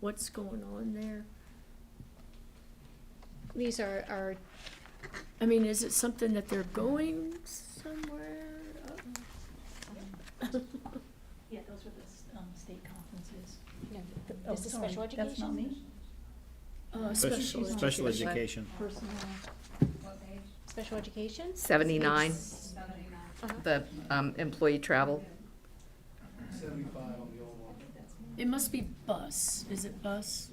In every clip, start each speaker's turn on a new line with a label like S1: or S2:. S1: what's going on there? These are, are, I mean, is it something that they're going somewhere?
S2: Yeah, those were the s- um, state conferences.
S3: No,
S2: Th- oh,
S3: this is
S2: sorry,
S3: special education.
S2: That's not me.
S1: Uh,
S2: Spec-
S1: special education.
S4: Special
S2: special
S4: education.
S2: Personal.
S3: Special education?
S5: Seventy-nine,
S3: Uh-huh.
S5: the um, employee travel.
S6: Seventy-five on the old one.
S1: It must be bus, is it bus?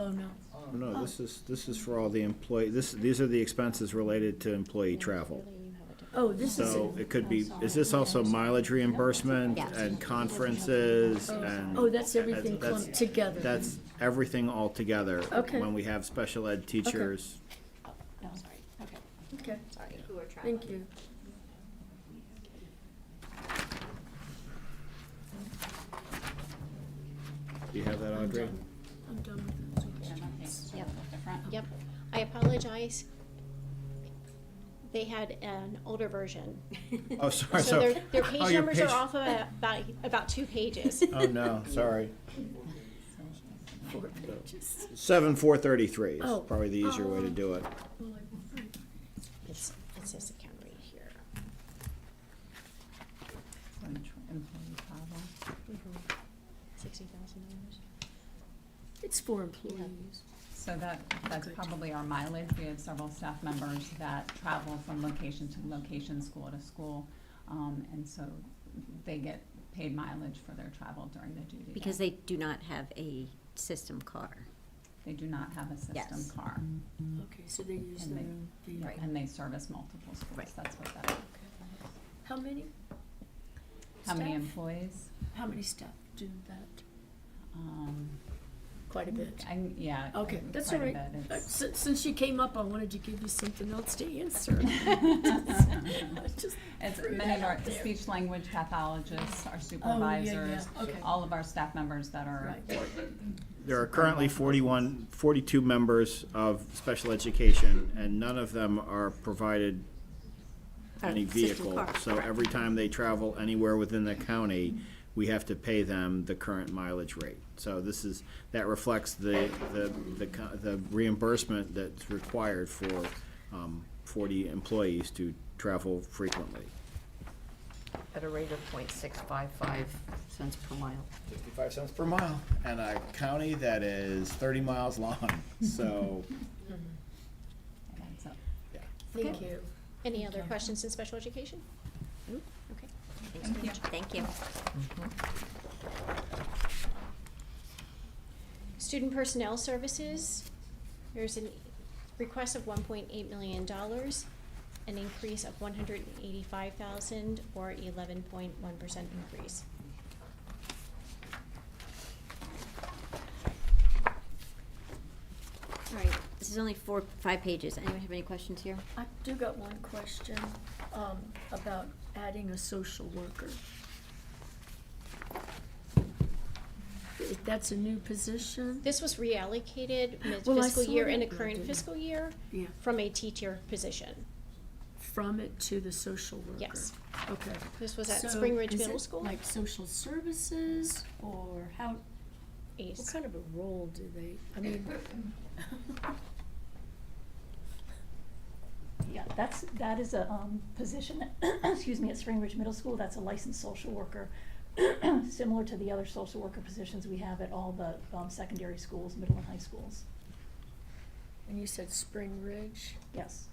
S1: Oh, no.
S4: No, this is, this is for all the employee, this, these are the expenses related to employee travel.
S3: Really, you have a different-
S1: Oh, this is,
S4: So
S1: it.
S4: it could be, is this also mileage reimbursement
S3: Yeah.
S4: and conferences and?
S1: oh, that's everything
S4: That's-
S1: clumped together.
S4: That's everything all together.
S1: Okay.
S4: When we have special ed teachers.
S3: Oh, no, sorry, okay,
S1: Okay,
S3: sorry.
S1: thank you.
S4: Do you have that,
S1: I'm
S4: Audrey?
S1: done. I'm done with those questions.
S3: Yep, yep. I apologize. They had an older version.
S4: Oh, sorry,
S3: So
S4: so.
S3: their, their
S4: oh,
S3: page
S4: your
S3: numbers are
S4: page-
S3: off about, by about two pages.
S4: Oh, no, sorry.
S1: Four pages.
S4: Seven, four thirty-three is
S1: Oh.
S4: probably the easier way to do it.
S1: Well, I-
S3: It's, it says account right here. Mm-hmm. Sixty thousand dollars.
S1: It's for employees.
S7: So that, that's
S1: Good.
S7: probably our mileage. We have several staff members that travel from location to location, school to school. Um, and so they get paid mileage for their travel during the duty day.
S8: Because they do not have a system car.
S7: They do not have a
S8: Yes.
S7: system car.
S1: Okay, so they use
S7: And
S1: their
S7: they-
S1: own vehicle.
S7: And they service multiple schools.
S8: Right.
S7: That's what that,
S1: How many?
S7: how many
S1: staff?
S7: employees?
S1: How many staff do that?
S7: Um,
S1: Quite a bit.
S7: I, yeah.
S1: Okay,
S7: quite
S1: that's
S7: a
S1: all right.
S7: bit.
S1: Uh,
S7: It's-
S1: si- Since you came up, I wanted to give you something else to answer. Just-
S7: It's
S1: Threw
S7: many
S1: that
S7: of our
S1: out there. Oh,
S7: speech language pathologists, our
S1: yeah, yeah,
S7: supervisors,
S1: okay.
S7: all of our staff members that are
S1: Right.
S4: There are currently 41, 42 members of special education, and none of them are provided any vehicle. So every time they travel anywhere within the county, we have to pay them the current mileage rate. So this is, that reflects the, the, the co- the reimbursement that's required for um, 40 employees to travel frequently.
S5: At a rate of point six five five cents per mile.
S4: 55 cents per mile, and a county that is 30 miles long, so,
S7: it adds up.
S4: yeah.
S1: Thank you.
S3: Any other questions in special education?
S5: Nope.
S3: Okay.
S7: Thank you.
S8: Thank you.
S5: Mm-hmm.
S3: Student Personnel Services, there's a request of one point eight million dollars, an increase of one hundred and eighty-five thousand or eleven point one percent increase.
S8: All right, this is only four, five pages. Anyone have any questions here?
S1: I do got one question um, about adding a social worker. If That's a new position?
S3: This was reallocated
S1: Well, I
S3: mid-fiscal
S1: saw
S3: year in the
S1: that, but I
S3: current
S1: didn't-
S3: fiscal year
S1: Yeah.
S3: from a teacher position.
S1: From it to the social worker?
S3: Yes.
S1: Okay.
S3: This was at
S1: So
S3: Spring Ridge
S1: is
S3: Middle
S1: it
S3: School.
S1: like social services or how,
S3: Ace.
S1: what kind of a role do they, I mean,
S2: Yeah, that's, that is a um, position, that- excuse me, at Spring Ridge Middle School, that's a licensed social worker, similar to the other social worker positions we have at all the um, secondary schools, middle and high schools.
S1: and you said Spring Ridge
S2: Yes,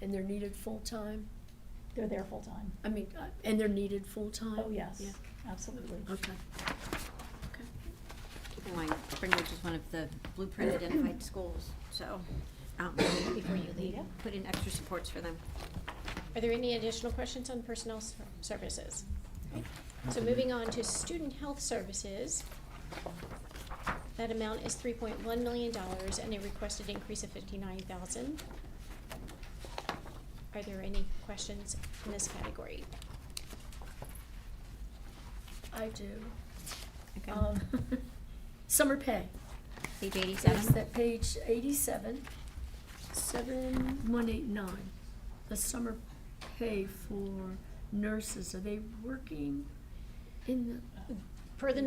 S1: and they're needed full-time?
S2: they're there full-time.
S1: I mean, uh, and they're needed full-time?
S2: Oh, yes,
S1: Yeah,
S2: absolutely.
S1: okay.
S8: Keep in mind, Spring Ridge is one of the blueprint identified schools, so, um, before you leave,
S2: Yeah.
S8: put in extra supports for them.
S3: Are there any additional questions on personnel ser- services? So moving on to student health services. That amount is three point one million dollars and a requested increase of fifty-nine thousand. Are there any questions in this category?
S1: I do.
S8: Okay,
S1: Um, summer pay.
S8: page
S1: That's
S8: eighty-seven.
S1: that page eighty-seven, seven, one eight nine. The summer pay for nurses, are they working in the?
S3: Per the